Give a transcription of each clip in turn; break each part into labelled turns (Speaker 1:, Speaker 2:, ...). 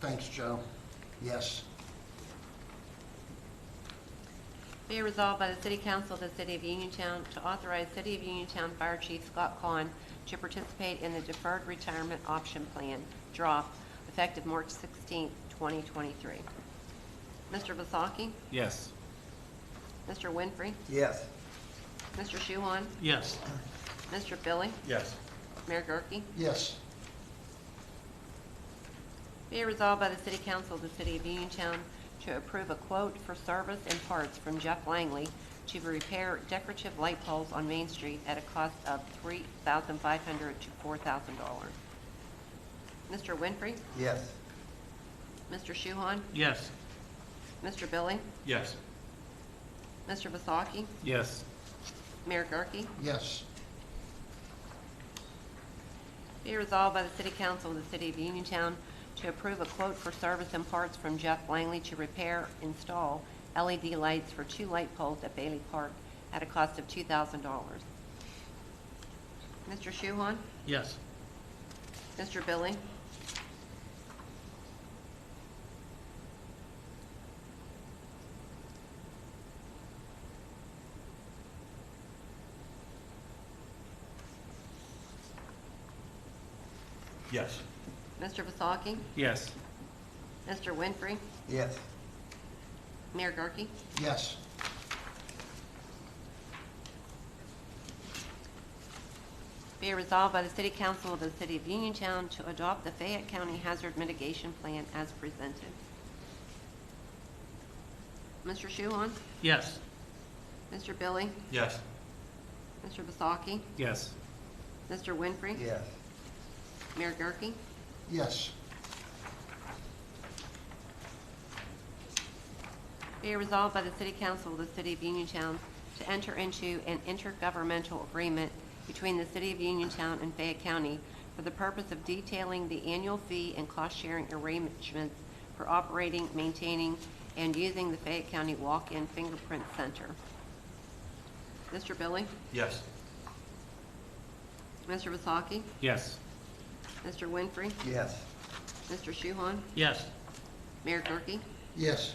Speaker 1: Thanks, Joe. Yes.
Speaker 2: Be it resolved by the City Council of the City of Uniontown to authorize City of Uniontown Fire Chief Scott Kahn to participate in the Deferred Retirement Option Plan, DROP, effective March 16, 2023. Mr. Vasaki?
Speaker 3: Yes.
Speaker 2: Mr. Winfrey?
Speaker 1: Yes.
Speaker 2: Mr. Shuhon?
Speaker 3: Yes.
Speaker 2: Mr. Billy?
Speaker 3: Yes.
Speaker 2: Mayor Gurke?
Speaker 1: Yes.
Speaker 2: Be it resolved by the City Council of the City of Uniontown to approve a quote for service and parts from Jeff Langley to repair decorative light poles on Main Street at a cost of three thousand five hundred to four thousand dollars. Mr. Winfrey?
Speaker 1: Yes.
Speaker 2: Mr. Shuhon?
Speaker 3: Yes.
Speaker 2: Mr. Billy?
Speaker 3: Yes.
Speaker 2: Mr. Vasaki?
Speaker 3: Yes.
Speaker 2: Mayor Gurke?
Speaker 1: Yes.
Speaker 2: Be resolved by the City Council of the City of Uniontown to approve a quote for service and parts from Jeff Langley to repair, install LED lights for two light poles at Bailey Park at a cost of two thousand dollars. Mr. Shuhon?
Speaker 3: Yes.
Speaker 2: Mr. Billy?
Speaker 3: Yes.
Speaker 2: Mr. Vasaki?
Speaker 3: Yes.
Speaker 2: Mr. Winfrey?
Speaker 1: Yes.
Speaker 2: Mayor Gurke?
Speaker 1: Yes.
Speaker 2: Be it resolved by the City Council of the City of Uniontown to adopt the Fayette County Hazard Mitigation Plan as presented. Mr. Shuhon?
Speaker 3: Yes.
Speaker 2: Mr. Billy?
Speaker 3: Yes.
Speaker 2: Mr. Vasaki?
Speaker 3: Yes.
Speaker 2: Mr. Winfrey?
Speaker 1: Yes.
Speaker 2: Mayor Gurke?
Speaker 1: Yes.
Speaker 2: Be it resolved by the City Council of the City of Uniontown to enter into an intergovernmental agreement between the City of Uniontown and Fayette County for the purpose of detailing the annual fee and cost-sharing arrangements for operating, maintaining, and using the Fayette County Walk-in Fingerprint Center. Mr. Billy?
Speaker 3: Yes.
Speaker 2: Mr. Vasaki?
Speaker 3: Yes.
Speaker 2: Mr. Winfrey?
Speaker 1: Yes.
Speaker 2: Mr. Shuhon?
Speaker 3: Yes.
Speaker 2: Mayor Gurke?
Speaker 1: Yes.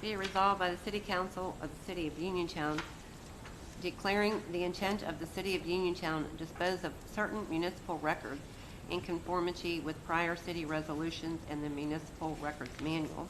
Speaker 2: Be it resolved by the City Council of the City of Uniontown declaring the intent of the City of Uniontown to dispose of certain municipal records in conformity with prior city resolutions and the municipal records manual.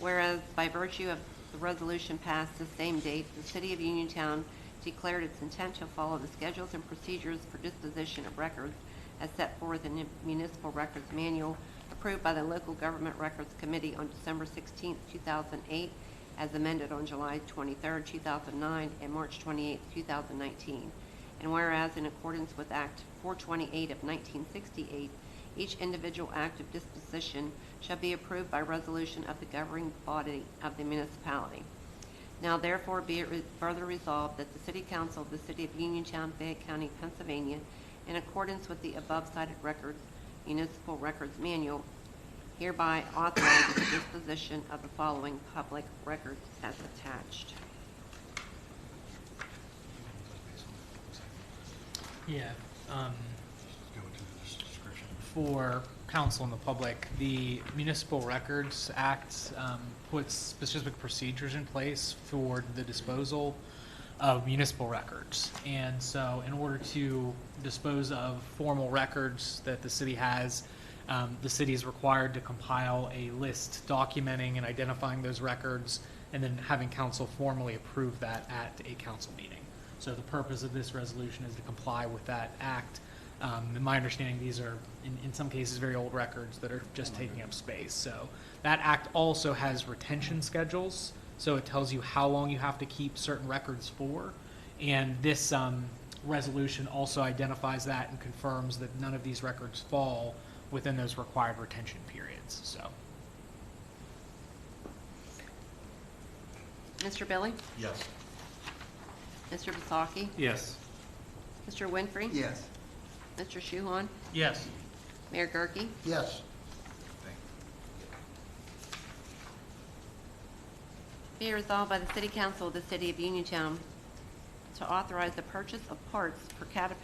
Speaker 2: Whereas by virtue of the resolution passed the same date, the City of Uniontown declared its intent to follow the schedules and procedures for disposition of records as set forth in the Municipal Records Manual approved by the Local Government Records Committee on December 16, 2008, as amended on July 23, 2009, and March 28, 2019. And whereas in accordance with Act 428 of 1968, each individual act of disposition shall be approved by resolution of the governing body of the municipality. Now therefore be it re- further resolved that the City Council of the City of Uniontown, Fayette County, Pennsylvania, in accordance with the above-cited records, municipal records manual, hereby authorizes the disposition of the following public records as attached.
Speaker 4: Yeah, um, for council and the public, the Municipal Records Act, um, puts specific procedures in place for the disposal of municipal records. And so in order to dispose of formal records that the city has, um, the city is required to compile a list documenting and identifying those records and then having council formally approve that at a council meeting. So the purpose of this resolution is to comply with that act. Um, in my understanding, these are, in, in some cases, very old records that are just taking up space. So that act also has retention schedules. So it tells you how long you have to keep certain records for. And this, um, resolution also identifies that and confirms that none of these records fall within those required retention periods, so.
Speaker 2: Mr. Billy?
Speaker 3: Yes.
Speaker 2: Mr. Vasaki?
Speaker 3: Yes.
Speaker 2: Mr. Winfrey?
Speaker 1: Yes.
Speaker 2: Mr. Shuhon?
Speaker 3: Yes.
Speaker 2: Mayor Gurke?
Speaker 1: Yes.
Speaker 2: Be it resolved by the City Council of the City of Uniontown to authorize the purchase of parts for Caterpillar